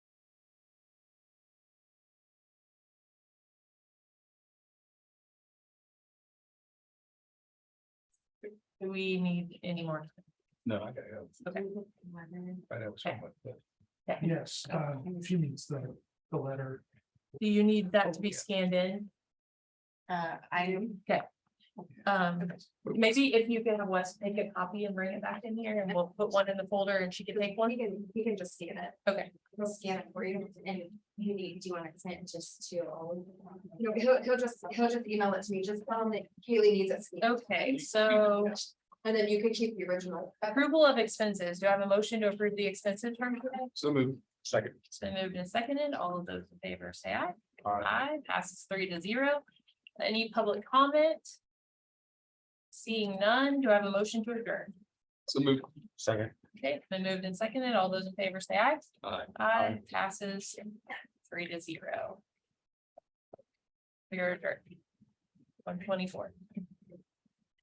Do we need any more? No, I gotta go. Okay. I know someone. Yes, uh, she needs the, the letter. Do you need that to be scanned in? Uh, I am, Okay. Um, maybe if you can have Wes make a copy and bring it back in here and we'll put one in the folder and she can take one. you can, you can just scan it. Okay. He'll scan it for you and you need, do you want it sent just to all? of them? No, he'll, he'll just, he'll just email it to me, just tell him that Kaylee needs it. scanned. Okay, so And then you can keep the original. approval of expenses. Do I have a motion to approve the expenses from today? So move. Second. It's been moved and seconded. All of those in favor say aye. All right. Aye, passes three to zero. Any public comment? Seeing none, do I have a motion to adjourn? So move. Second. Okay, it's been moved and seconded. All those in favor say aye. All right. Aye, passes three to zero. We are adjourned. One twenty-four.